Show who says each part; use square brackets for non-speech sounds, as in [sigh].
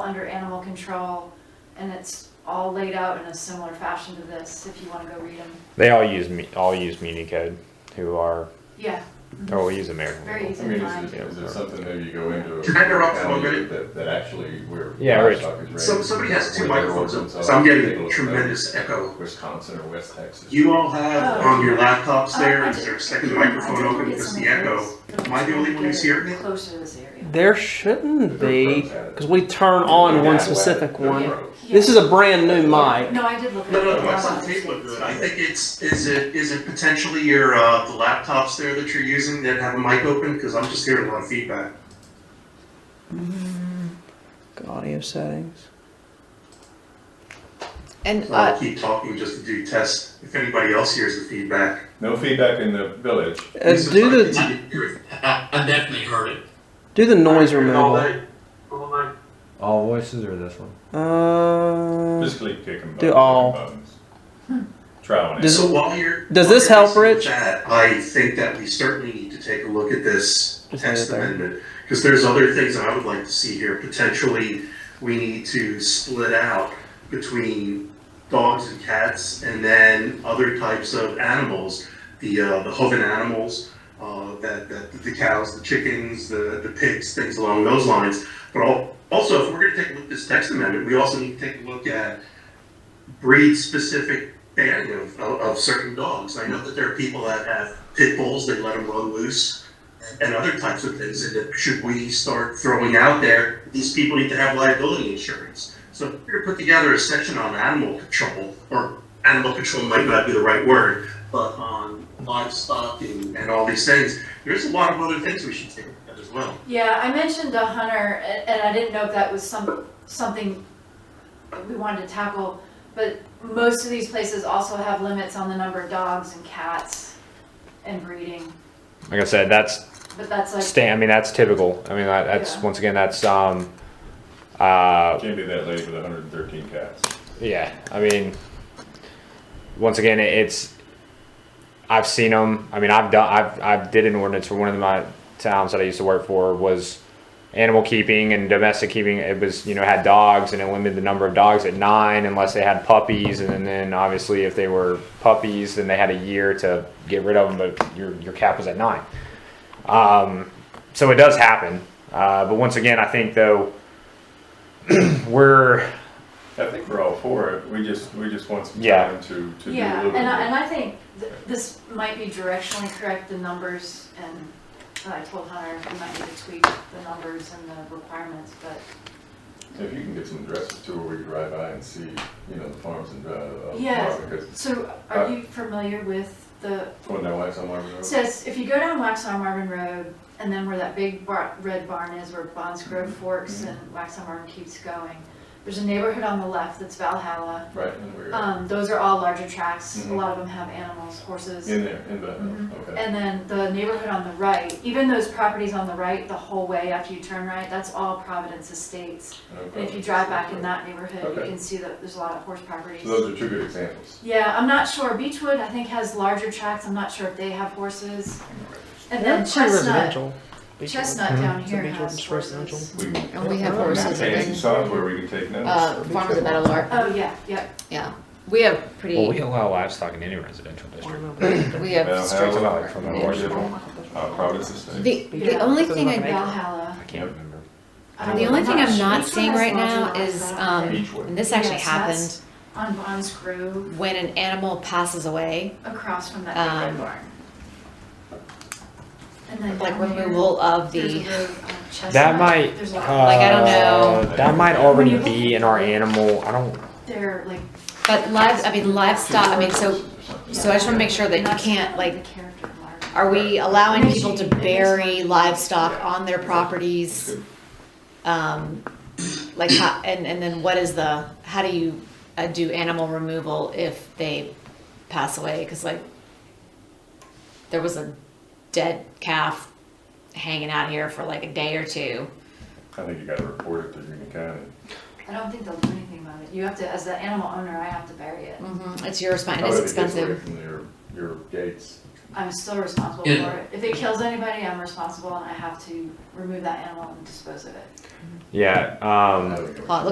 Speaker 1: under animal control, and it's all laid out in a similar fashion to this, if you wanna go read them.
Speaker 2: They all use me, all use Muni Code, who are,
Speaker 1: Yeah,
Speaker 2: or we use American
Speaker 1: Very
Speaker 2: Legal.
Speaker 1: easy.
Speaker 3: I mean, is it, is it something maybe you go into? a
Speaker 4: Can I interrupt for one
Speaker 3: county
Speaker 4: minute?
Speaker 3: That, that actually where.
Speaker 2: Yeah, Rich.
Speaker 3: livestock is raised,
Speaker 4: So, somebody has two
Speaker 3: where their
Speaker 4: microphones,
Speaker 3: origins
Speaker 4: so
Speaker 3: are,
Speaker 4: I'm
Speaker 3: take a
Speaker 4: getting
Speaker 3: look at
Speaker 4: tremendous echo.
Speaker 3: Wisconsin or West Texas.
Speaker 4: You all have on your laptops there, is there a second
Speaker 1: Oh. Uh, Um, I
Speaker 4: microphone
Speaker 1: did
Speaker 4: open
Speaker 1: get
Speaker 4: because
Speaker 1: some
Speaker 4: the echo?
Speaker 1: of those.
Speaker 4: Am I the only one who's hearing it?
Speaker 1: Closer to this area.
Speaker 5: There shouldn't
Speaker 3: Their
Speaker 5: be,
Speaker 3: pros had it.
Speaker 5: because we turn
Speaker 3: Their
Speaker 5: on one
Speaker 3: dad had
Speaker 5: specific
Speaker 3: it, their
Speaker 5: one.
Speaker 3: pros.
Speaker 1: Yeah.
Speaker 5: This is a brand new mic.
Speaker 1: No, I did look at it.
Speaker 4: No, no,
Speaker 1: but
Speaker 4: no, it's
Speaker 1: I
Speaker 4: on
Speaker 1: wanted to
Speaker 4: Facebook
Speaker 1: see
Speaker 4: good.
Speaker 1: it.
Speaker 4: I think it's, is it, is it potentially your, uh, the laptops there that you're using that have a mic open? Because I'm just hearing a lot of feedback.
Speaker 5: Audio settings.
Speaker 6: And
Speaker 4: So I'll
Speaker 6: uh,
Speaker 4: keep talking just to do tests, if anybody else hears the feedback.
Speaker 3: No feedback in the village.
Speaker 5: Uh,
Speaker 4: This is
Speaker 5: do
Speaker 4: like-
Speaker 5: the
Speaker 7: I, I definitely heard it.
Speaker 5: do the noise removal.
Speaker 8: All voices or this one?
Speaker 5: Uh,
Speaker 3: Physically kick them.
Speaker 5: Do all.
Speaker 3: Try one.
Speaker 5: Does-
Speaker 4: So while you're.
Speaker 5: does this
Speaker 4: while you're
Speaker 5: help, Rich?
Speaker 4: listening to that, I think that we certainly need to take a look at this
Speaker 5: Just leave
Speaker 4: text
Speaker 5: it there.
Speaker 4: amendment, because there's other things that I would like to see here. Potentially, we need to split out between dogs and cats and then other types of animals, the, uh, the hoven animals, uh, that, that, the cows, the chickens, the, the pigs, things along those lines. But al- also, if we're gonna take a look at this text amendment, we also need to take a look at breed-specific banning of, of, of certain dogs. I know that there are people that have pit bulls, they let them run loose and other types of things. And that should we start throwing out there, these people need to have liability insurance. So if we're to put together a section on animal control, or animal control might not be the right word, but on livestock and, and all these things, there's a lot of other things we should take a look at as well.
Speaker 1: Yeah, I mentioned a hunter, a- and I didn't know if that was some, something we wanted to tackle, but most of these places also have limits on the number of dogs and cats and breeding,
Speaker 2: Like I said, that's
Speaker 1: but that's like.
Speaker 2: stand, I mean, that's typical. I mean, that- that's,
Speaker 1: Yeah.
Speaker 2: once again, that's, um, uh,
Speaker 3: Can't be that lady with hundred and thirteen cats.
Speaker 2: yeah, I mean, once again, it- it's, I've seen them. I mean, I've done, I've, I've did an ordinance for one of my towns that I used to work for was animal keeping and domestic keeping. It was, you know, had dogs and it limited the number of dogs at nine unless they had puppies. And then obviously if they were puppies, then they had a year to get rid of them, but your, your cap was at nine. Um, so it does happen. Uh, but once again, I think though, [clears throat] we're,
Speaker 3: I think we're all for it. We just, we just want some
Speaker 2: Yeah.
Speaker 3: time to, to do a
Speaker 1: Yeah,
Speaker 3: little
Speaker 1: and I, and
Speaker 3: bit.
Speaker 1: I think th- this might be directionally correct, the numbers, and I told Hunter, we might need to tweak the numbers and the requirements, but,
Speaker 3: If you can get some addresses to where we can drive by and see, you know, the farms and, uh, uh,
Speaker 1: Yes.
Speaker 3: farm, because
Speaker 1: so
Speaker 3: Uh,
Speaker 1: are you familiar with the,
Speaker 3: when my wife's on Marvin
Speaker 1: it
Speaker 3: Road.
Speaker 1: says, if you go down Waxaw Marvin Road, and then where that big bar, red barn is, where Bonds Grove
Speaker 3: Mm-hmm.
Speaker 1: forks and Waxaw Marvin keeps going, there's a neighborhood on the left that's Valhalla,
Speaker 3: Right, and we're
Speaker 1: um, those are all larger tracts, a
Speaker 3: Mhm.
Speaker 1: lot of them have animals, horses.
Speaker 3: in there, in the,
Speaker 1: Mhm.
Speaker 3: okay.
Speaker 1: And then the neighborhood on the right, even those properties on the right, the whole way after you turn right, that's all Providence Estates. And if you drive back in that neighborhood, you
Speaker 3: Oh, Okay.
Speaker 1: can see that there's a lot of horse properties.
Speaker 3: So those are two good examples.
Speaker 1: Yeah, I'm not sure, Beechwood, I think, has larger tracts, I'm not sure if they have horses. And then Chestnut, Chestnut down here has horses.
Speaker 3: We can
Speaker 6: and we have
Speaker 5: Yeah.
Speaker 6: horses
Speaker 3: take some
Speaker 6: and
Speaker 3: software, we can take notes.
Speaker 6: uh, farms of Metal Lark.
Speaker 1: Oh, yeah, yeah,
Speaker 6: Yeah, we have
Speaker 2: well, we
Speaker 6: pretty.
Speaker 2: allow livestock in any residential district.
Speaker 6: We
Speaker 3: Well,
Speaker 6: have strict.
Speaker 3: how about from the
Speaker 6: Yeah.
Speaker 3: horse farm? Uh, Providence Estate.
Speaker 6: The the
Speaker 1: Yeah.
Speaker 6: only thing
Speaker 5: Doesn't
Speaker 6: I
Speaker 1: Valhalla.
Speaker 2: I can't remember.
Speaker 1: Um,
Speaker 6: the only thing I'm not
Speaker 1: sure.
Speaker 6: seeing
Speaker 1: Which one
Speaker 6: right
Speaker 1: has
Speaker 6: now
Speaker 1: larger
Speaker 6: is
Speaker 1: lines?
Speaker 6: um
Speaker 3: Beechwood.
Speaker 6: and this actually
Speaker 1: Yes,
Speaker 6: happened
Speaker 1: that's- On Bonds Grove,
Speaker 6: when an animal passes away,
Speaker 1: across from that big
Speaker 6: Um,
Speaker 1: red barn. And then
Speaker 6: like
Speaker 1: down here-
Speaker 6: removal of
Speaker 1: There's a
Speaker 6: the.
Speaker 1: road on Chestnut.
Speaker 2: That might,
Speaker 1: There's a lot,
Speaker 6: Like, I don't know.
Speaker 2: uh, that might already be in our animal, I don't,
Speaker 1: they're like.
Speaker 6: But live, I mean livestock. I mean, so so I just want to make sure that you
Speaker 1: That's
Speaker 6: can't
Speaker 1: the
Speaker 6: like.
Speaker 1: character mark.
Speaker 6: Are we allowing people to bury livestock on their properties? Um, like how, and, and then what is the, how do you uh, do animal removal if they pass away? Cause like, there was a dead calf hanging out here for like a day or two.
Speaker 3: I think you gotta report it to Union County.
Speaker 1: I don't think they'll do anything about it. You have to, as the animal owner, I have to bury it.
Speaker 6: Mm-hmm. It's your responsibility,
Speaker 3: However
Speaker 6: it's
Speaker 3: it gets away
Speaker 6: expensive.
Speaker 3: From your, your gates.
Speaker 1: I'm still responsible for
Speaker 7: Yeah.
Speaker 1: it. If it kills anybody, I'm responsible and I have to remove that animal and dispose of it.
Speaker 2: Yeah. Um,
Speaker 3: I would go with
Speaker 6: Well, it